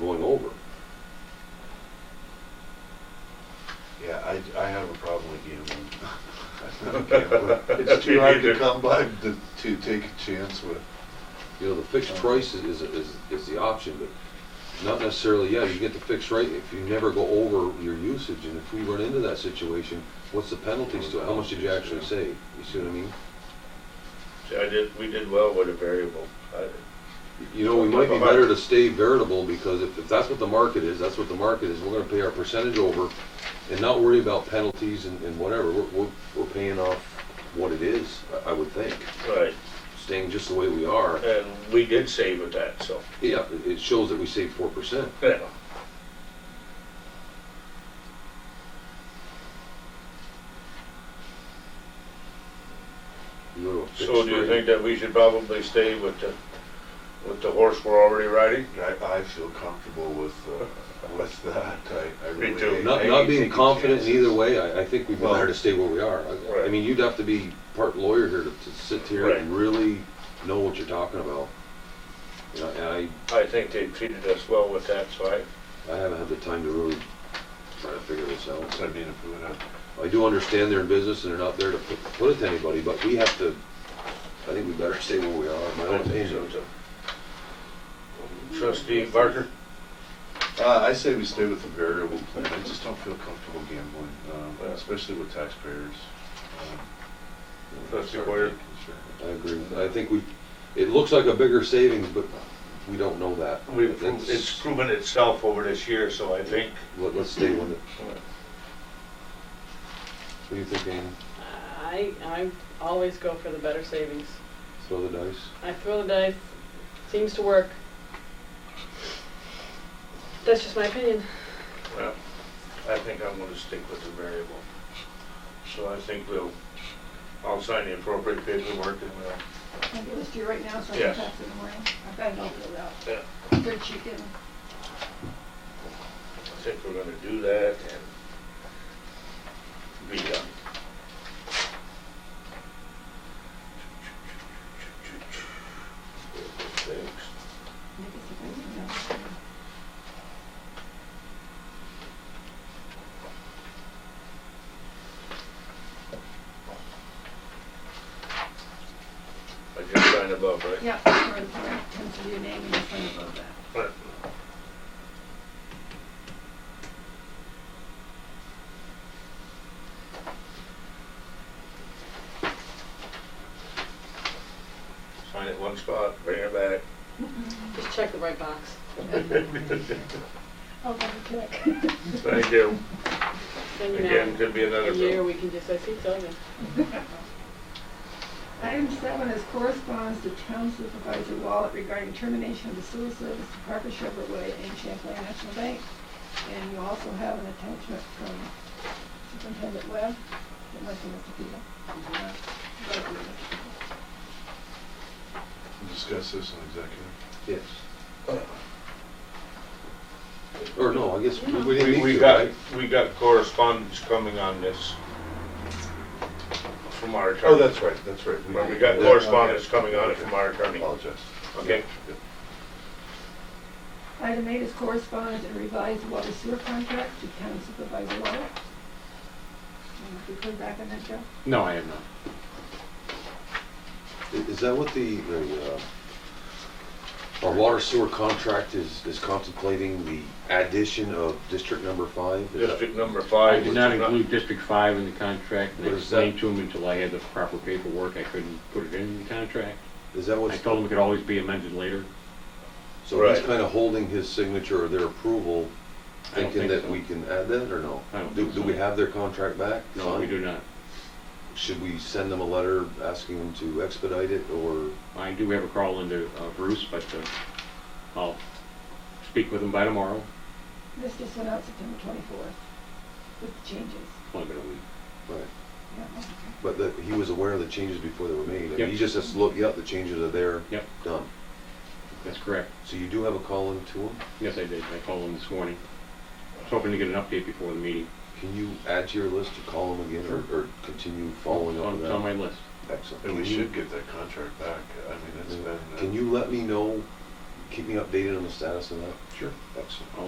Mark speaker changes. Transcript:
Speaker 1: going over.
Speaker 2: Yeah, I, I have a problem with gambling. I'm not a gambler. It's too hard to come by to, to take a chance with.
Speaker 1: You know, the fixed price is, is, is- is the option, but not necessarily, yeah, you get the fixed rate if you never go over your usage, and if we run into that situation, what's the penalties to it? How much did you actually save? You see what I mean?
Speaker 3: See, I did, we did well with a variable. I-
Speaker 1: You know, we might be better to stay veritable, because if, if that's what the market is, that's what the market is, we're gonna pay our percentage over and not worry about penalties and, and whatever, we're, we're, we're paying off what it is, I, I would think,
Speaker 3: Right,
Speaker 1: staying just the way we are.
Speaker 3: and we did save with that, so,
Speaker 1: Yeah, it- it shows that we saved four percent.
Speaker 3: yeah. So do you think that we should probably stay with the, with the horse we're already riding?
Speaker 2: I, I feel comfortable with, uh, with that. I, I
Speaker 3: Me
Speaker 2: really.
Speaker 3: too.
Speaker 2: hate- I
Speaker 1: Not,
Speaker 2: hate
Speaker 1: not being
Speaker 2: taking
Speaker 1: confident in
Speaker 2: chances.
Speaker 1: either way, I, I think we'd be
Speaker 2: Well-
Speaker 1: better to stay where we are. I- I
Speaker 3: Right.
Speaker 1: mean, you'd have to be part lawyer here to, to sit here and really know what you're talking about. And I, and
Speaker 3: I think they treated us well with that, so I,
Speaker 1: I, I haven't had the time to really try to figure this out.
Speaker 2: So I mean, if we went out,
Speaker 1: I do understand they're in business and they're not there to put, put it to anybody, but we have to, I think we better stay where we are, in my
Speaker 3: I
Speaker 1: own
Speaker 3: don't think so.
Speaker 1: opinion.
Speaker 3: so. Trustee Barker?
Speaker 2: uh, I say we stay with the variable plan. I just don't feel comfortable gambling, um, especially with taxpayers. Um,
Speaker 3: That's
Speaker 2: our
Speaker 3: required.
Speaker 2: main concern.
Speaker 1: I agree. I think we, it looks like a bigger savings, but we don't know that.
Speaker 3: We've,
Speaker 1: That's-
Speaker 3: it's proven itself over this year, so I think.
Speaker 1: Let, let's stay with it. What do you think, Ann?
Speaker 4: I, I always go for the better savings.
Speaker 1: Throw the dice?
Speaker 4: I throw the dice, seems to work. That's just my opinion.
Speaker 3: Well, I think I'm gonna stick with the variable. So I think we'll, I'll sign the appropriate paperwork and we'll
Speaker 5: Can I give this to you right now, so I
Speaker 3: Yes.
Speaker 5: can pass it in the morning? I've got it all filled out.
Speaker 3: Yeah.
Speaker 5: Good chicken.
Speaker 3: I think we're gonna do that and be done.
Speaker 5: Maybe it's a good one, yeah.
Speaker 3: I just signed above, right?
Speaker 5: Yeah, for the parent, pencil your name and your phone above that.
Speaker 3: Right. Sign it one spot, bring it back.
Speaker 4: Just check the right box.
Speaker 5: Oh, double check.
Speaker 3: Thank you.
Speaker 4: Then you
Speaker 3: Again,
Speaker 4: know,
Speaker 3: could be another
Speaker 4: a year
Speaker 3: bill.
Speaker 4: we can just, I see something.
Speaker 5: Item seven is correspondence to town supervisor Wallet regarding termination of the sewer service to Parker Chevrolet and Champlain National Bank. And you also have an attachment from Superintendent Webb that went to Mr. Peter.
Speaker 2: Discuss this in executive.
Speaker 1: Yes. Or no, I guess we we
Speaker 3: We,
Speaker 1: didn't
Speaker 3: we
Speaker 1: need to,
Speaker 3: got,
Speaker 1: right?
Speaker 3: we got correspondence coming on this from our attorney.
Speaker 2: Oh, that's right, that's right.
Speaker 3: Well, We got correspondence coming on it from our attorney.
Speaker 2: Apologize.
Speaker 3: Okay.
Speaker 5: Item eight is correspondence and revised water sewer contract to town supervisor Wallet. And if you put back on that, Joe?
Speaker 6: No, I have not.
Speaker 1: I- Is that what the, the, uh, our water sewer contract is, is contemplating the addition of district number five? Is that-
Speaker 3: District number
Speaker 6: I
Speaker 3: five.
Speaker 6: did not
Speaker 3: which is
Speaker 6: include District Five in the contract, and I
Speaker 1: What is that?
Speaker 6: explained to him until I had the proper paperwork, I couldn't put it in the contract.
Speaker 1: Is that
Speaker 6: I
Speaker 1: what's,
Speaker 6: told him it could always be amended later.
Speaker 1: so he's
Speaker 3: Right.
Speaker 1: kind of holding his signature or their approval,
Speaker 6: I don't
Speaker 1: thinking
Speaker 6: think
Speaker 1: that
Speaker 6: so.
Speaker 1: we can add that or no?
Speaker 6: I don't
Speaker 1: Do,
Speaker 6: think
Speaker 1: do
Speaker 6: so.
Speaker 1: we have their contract back?
Speaker 6: No, we
Speaker 1: Signed?
Speaker 6: do not.
Speaker 1: Should we send them a letter asking them to expedite it, or
Speaker 6: I do have a call into uh, Bruce, but uh, I'll speak with him by tomorrow,
Speaker 5: This just went out September twenty-fourth with changes.
Speaker 6: It's only been a week.
Speaker 1: right?
Speaker 5: Yeah, okay.
Speaker 1: But that he was aware of the changes before they were made. I mean,
Speaker 6: Yep.
Speaker 1: He just has to look, yep, the changes are there.
Speaker 6: Yep.
Speaker 1: Done.
Speaker 6: That's correct.
Speaker 1: So you do have a call in to him.
Speaker 6: Yes, I did, I called him this morning. I was hoping to get an update before the meeting.
Speaker 1: Can you add to your list to call him again or, or continue following up with
Speaker 6: It's on- It's on
Speaker 1: Oh, that?
Speaker 6: my list.
Speaker 1: Excellent.
Speaker 2: And we
Speaker 1: Can you-
Speaker 2: should get that contract back. I mean, it's been. uh,
Speaker 1: Can you let me know keep me updated on the status of that?
Speaker 2: Sure.
Speaker 1: Excellent.